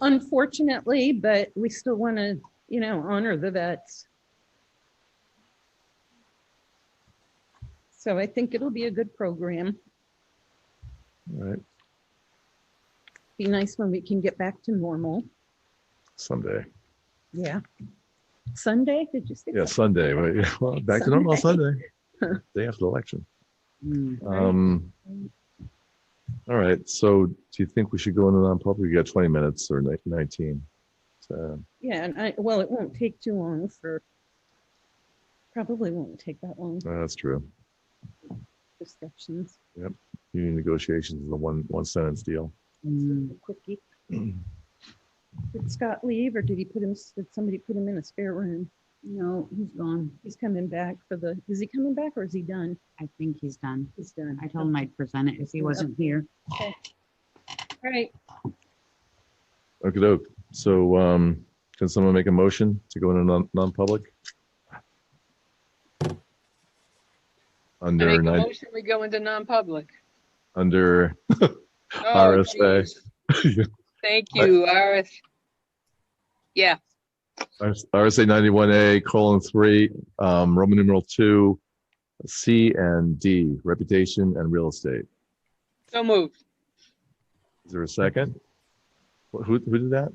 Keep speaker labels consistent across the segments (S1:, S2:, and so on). S1: unfortunately, but we still want to, you know, honor the vets. So I think it'll be a good program.
S2: All right,
S1: Be nice when we can get back to normal.
S2: someday.
S1: Yeah. Sunday, did you say?
S2: Yeah, Sunday, right? Yeah, Well, back to normal Sunday, day after the election. Um, all right, so do you think we should go into non-public? You got twenty minutes or ni- nineteen? So,
S1: Yeah, and I, well, it won't take too long for, probably won't take that long
S2: uh, that's true.
S1: for discussions.
S2: Union negotiations is the one, one sentence deal.
S3: Mm,
S1: Quickie. Did Scott leave or did he put him, did somebody put him in a spare room?
S3: No, he's gone.
S1: He's coming back for the, is he coming back or is he done?
S3: I think he's done.
S1: He's done.
S3: I told him I'd present it if he wasn't here.
S1: All right,
S2: Okay, doke. So, um, can someone make a motion to go into non, non-public?
S4: I make
S2: Under
S4: a
S2: nine,
S4: motion, we go into non-public.
S2: under,
S4: Oh,
S2: RSA.
S4: geez. Thank you, RS. Yeah,
S2: RSA ninety-one A colon three, um, Roman numeral two, C and D, reputation and real estate.
S4: so moved.
S2: Is there a second? Wh- Who, who did that?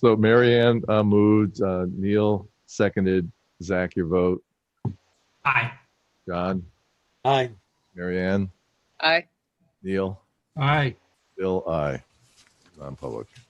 S2: So Mary Ann uh, moved, uh, Neil seconded, Zach, your vote,
S5: Aye.
S2: John,
S6: Aye.
S2: Mary Ann,
S4: Aye.
S2: Neil,
S5: Aye.
S2: Bill, I, non-public.